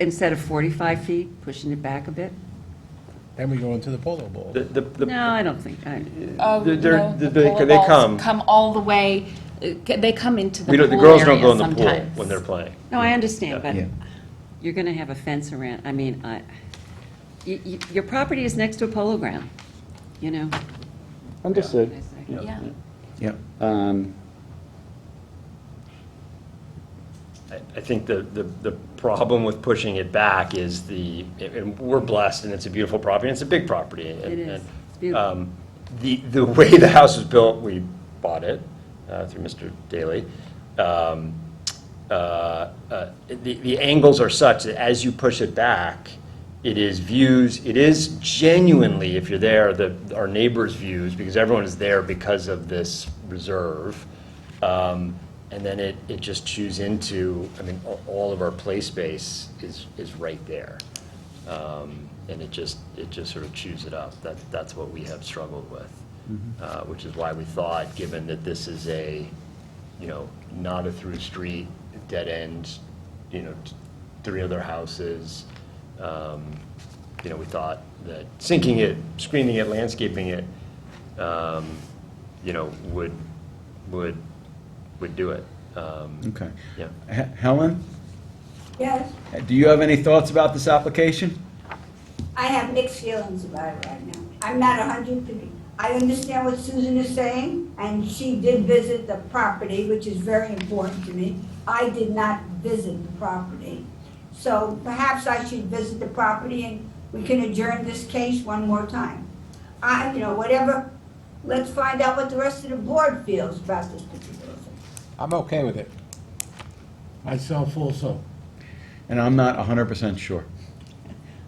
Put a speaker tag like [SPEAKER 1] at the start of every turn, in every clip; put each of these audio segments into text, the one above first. [SPEAKER 1] instead of 45 feet, pushing it back a bit?
[SPEAKER 2] Then we go into the polo bowl.
[SPEAKER 3] The, the, the-
[SPEAKER 1] No, I don't think, I,
[SPEAKER 4] Oh,
[SPEAKER 3] They're- they're-
[SPEAKER 4] no, the
[SPEAKER 3] they-
[SPEAKER 4] polo
[SPEAKER 3] they
[SPEAKER 4] balls
[SPEAKER 3] come.
[SPEAKER 4] Come all the way, uh, ca- they come into the
[SPEAKER 3] we
[SPEAKER 4] pool
[SPEAKER 3] don't, the girls don't go
[SPEAKER 4] area
[SPEAKER 3] in the pool
[SPEAKER 4] sometimes.
[SPEAKER 3] when they're playing.
[SPEAKER 1] no, I understand, but
[SPEAKER 2] Yeah.
[SPEAKER 1] you're going to have a fence around, I mean, I, y- y- your property is next to a polo ground, you know?
[SPEAKER 5] Understood.
[SPEAKER 4] Yeah.
[SPEAKER 2] Yeah.
[SPEAKER 5] Um,
[SPEAKER 3] I, I think the, the, the problem with pushing it back is the, and we're blessed, and it's a beautiful property, and it's a big property. and-
[SPEAKER 1] It is.
[SPEAKER 3] and,
[SPEAKER 1] It's beautiful.
[SPEAKER 3] um, The, the way the house was built, we bought it uh, through Mr. Daley. um, uh, uh, The, the angles are such that as you push it back, it is views, it is genuinely, if you're there, the, our neighbors' views, because everyone is there because of this reserve. Um, And then it, it just chews into, I mean, a- all of our play space is, is right there. Um, And it just, it just sort of chews it up. That, that's what we have struggled with, Uh, which is why we thought, given that this is a, you know, not a through street, dead end, you know, t- three other houses, um, you know, we thought that sinking it, screening it, landscaping it, um, you know, would, would, would do it. Um,
[SPEAKER 6] Okay.
[SPEAKER 3] Yeah.
[SPEAKER 6] H- Helen,
[SPEAKER 7] Yes,
[SPEAKER 6] do you have any thoughts about this application?
[SPEAKER 7] I have mixed feelings about it right now. I'm not a hundred, per- I understand what Susan is saying, and she did visit the property, which is very important to me. I did not visit the property. So perhaps I should visit the property and we can adjourn this case one more time. I, you know, whatever, let's find out what the rest of the board feels about this particular thing.
[SPEAKER 2] I'm okay with it. Myself also.
[SPEAKER 6] And I'm not 100% sure.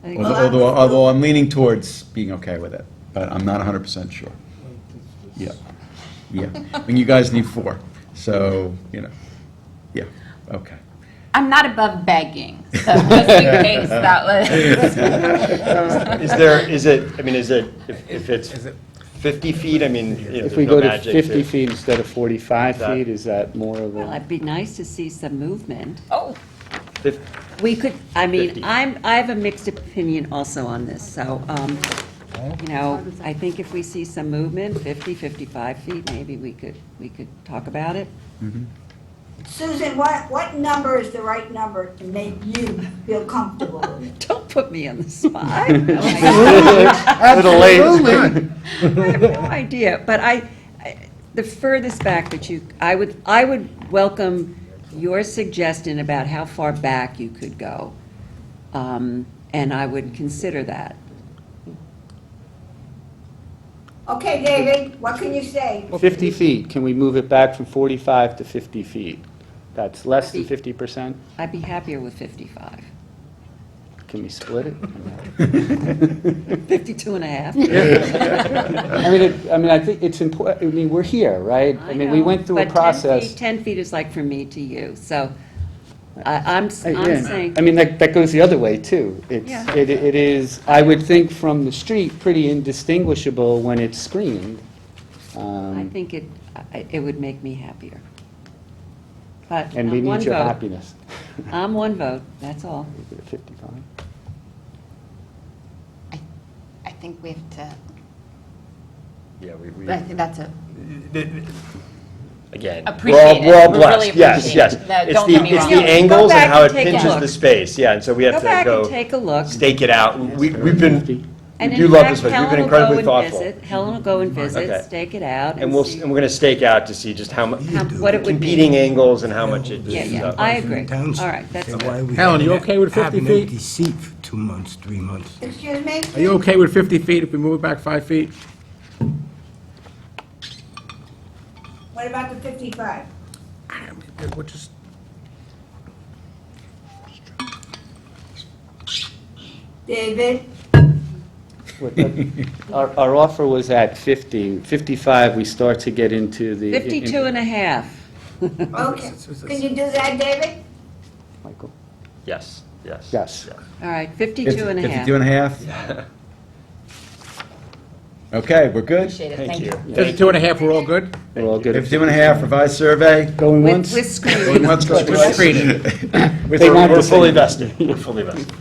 [SPEAKER 1] I think-
[SPEAKER 6] Although, although, although I'm leaning towards being okay with it, but I'm not 100% sure. Yeah. Yeah. And you guys need four. So, you know. Yeah. Okay.
[SPEAKER 4] I'm not above begging, so just in case that was.
[SPEAKER 3] Is there, is it, I mean, is it, if if it's
[SPEAKER 2] Is it-
[SPEAKER 3] 50 feet, I mean, you know,
[SPEAKER 5] If
[SPEAKER 3] there's
[SPEAKER 5] we
[SPEAKER 3] no
[SPEAKER 5] go to
[SPEAKER 3] magic.
[SPEAKER 5] 50 feet instead of 45
[SPEAKER 3] That-
[SPEAKER 5] feet, is that more of
[SPEAKER 1] Well,
[SPEAKER 5] a,
[SPEAKER 1] it'd be nice to see some movement.
[SPEAKER 4] Oh,
[SPEAKER 3] fif-
[SPEAKER 1] We could, I mean,
[SPEAKER 3] Fifty.
[SPEAKER 1] I'm, I have a mixed opinion also on this, so, um, you know, I think if we see some movement, 50, 55 feet, maybe we could, we could talk about it.
[SPEAKER 7] Susan, what, what number is the right number to make you feel comfortable with it?
[SPEAKER 1] Don't put me on the spot. Oh I Oh, have no idea, but I, I- the furthest back that you, I would, I would welcome your suggestion about how far back you could go, Um, and I would consider that.
[SPEAKER 7] Okay, David, what can you say?
[SPEAKER 5] 50 feet, can we move it back from 45 to 50 feet? That's less than
[SPEAKER 1] Fifty.
[SPEAKER 5] 50%?
[SPEAKER 1] I'd be happier with 55.
[SPEAKER 5] Can we split it?
[SPEAKER 1] 52 and a half.
[SPEAKER 5] I mean, it- I mean, I think it's important, I mean, we're here, right? I mean, we went through a
[SPEAKER 1] But 10 feet-
[SPEAKER 5] process.
[SPEAKER 1] 10 feet is like from me to you, so I- I'm, s-
[SPEAKER 5] I-
[SPEAKER 1] I'm
[SPEAKER 5] yeah.
[SPEAKER 1] saying,
[SPEAKER 5] I mean, that, that goes the other way, too.
[SPEAKER 1] Yeah.
[SPEAKER 5] It's, it it is, I would think from the street, pretty indistinguishable when it's screened.
[SPEAKER 1] I
[SPEAKER 5] Um,
[SPEAKER 1] think it, I- it would make me happier. But
[SPEAKER 5] And we
[SPEAKER 1] I'm one
[SPEAKER 5] need your
[SPEAKER 1] vote.
[SPEAKER 5] happiness.
[SPEAKER 1] I'm one vote, that's all.
[SPEAKER 5] 55.
[SPEAKER 8] I, I think we have to,
[SPEAKER 3] Yeah, we, we.
[SPEAKER 8] but I think that's a,
[SPEAKER 3] again.
[SPEAKER 8] Appreciate
[SPEAKER 3] we're all- We're
[SPEAKER 8] it.
[SPEAKER 3] all
[SPEAKER 8] We really
[SPEAKER 3] blessed,
[SPEAKER 8] appreciate
[SPEAKER 3] yes, yes.
[SPEAKER 8] it. No,
[SPEAKER 3] It's
[SPEAKER 8] don't
[SPEAKER 3] the-
[SPEAKER 8] get me
[SPEAKER 3] It's
[SPEAKER 8] wrong.
[SPEAKER 3] the
[SPEAKER 8] Yeah, go
[SPEAKER 3] angles
[SPEAKER 1] back
[SPEAKER 3] and how
[SPEAKER 1] and
[SPEAKER 3] it
[SPEAKER 1] take a
[SPEAKER 3] pinches
[SPEAKER 1] look.
[SPEAKER 3] the space, yeah, and so we have
[SPEAKER 1] Go
[SPEAKER 3] to
[SPEAKER 1] back and
[SPEAKER 3] go
[SPEAKER 1] take a look.
[SPEAKER 3] stake it out. We, we've been, we
[SPEAKER 1] And
[SPEAKER 3] do
[SPEAKER 1] in
[SPEAKER 3] love this
[SPEAKER 1] fact,
[SPEAKER 3] place,
[SPEAKER 1] Helen
[SPEAKER 3] you've been
[SPEAKER 1] will go
[SPEAKER 3] incredibly
[SPEAKER 1] and
[SPEAKER 3] thoughtful.
[SPEAKER 1] visit, Helen will go and visit,
[SPEAKER 3] Okay.
[SPEAKER 1] stake it out
[SPEAKER 3] And
[SPEAKER 1] and
[SPEAKER 3] we'll,
[SPEAKER 1] see
[SPEAKER 3] and we're gonna stake out to see just how much,
[SPEAKER 1] how- what it would be.
[SPEAKER 3] competing angles and how much it. uh,
[SPEAKER 1] Yeah, yeah,
[SPEAKER 3] stuff.
[SPEAKER 1] I agree. All right, that's good.
[SPEAKER 2] Helen, you okay with 50
[SPEAKER 9] Have an
[SPEAKER 2] feet?
[SPEAKER 9] empty seat for two months, three months.
[SPEAKER 7] Excuse me?
[SPEAKER 2] Are you okay with 50 feet if we move it back five feet?
[SPEAKER 7] What about the fifty-five?
[SPEAKER 9] I mean, We're just,
[SPEAKER 7] David?
[SPEAKER 5] What- what- Our, our offer was at 50, 55, we start to get into the.
[SPEAKER 1] 52 and a half.
[SPEAKER 7] Okay. Can you do that, David?
[SPEAKER 5] Michael?
[SPEAKER 3] Yes, yes.
[SPEAKER 5] Yes.
[SPEAKER 1] All right, 52 and a half.
[SPEAKER 6] 52 and a half? Okay, we're good?
[SPEAKER 4] Appreciate it, thank you.
[SPEAKER 2] Just two and a half, we're all good?
[SPEAKER 5] We're all good.
[SPEAKER 6] If two and a half revised survey,
[SPEAKER 5] Going
[SPEAKER 1] With
[SPEAKER 5] once?
[SPEAKER 1] with screening.
[SPEAKER 6] Let's go.
[SPEAKER 2] Screening.
[SPEAKER 5] They want
[SPEAKER 3] We're
[SPEAKER 5] the same.
[SPEAKER 3] fully vested, we're fully vested.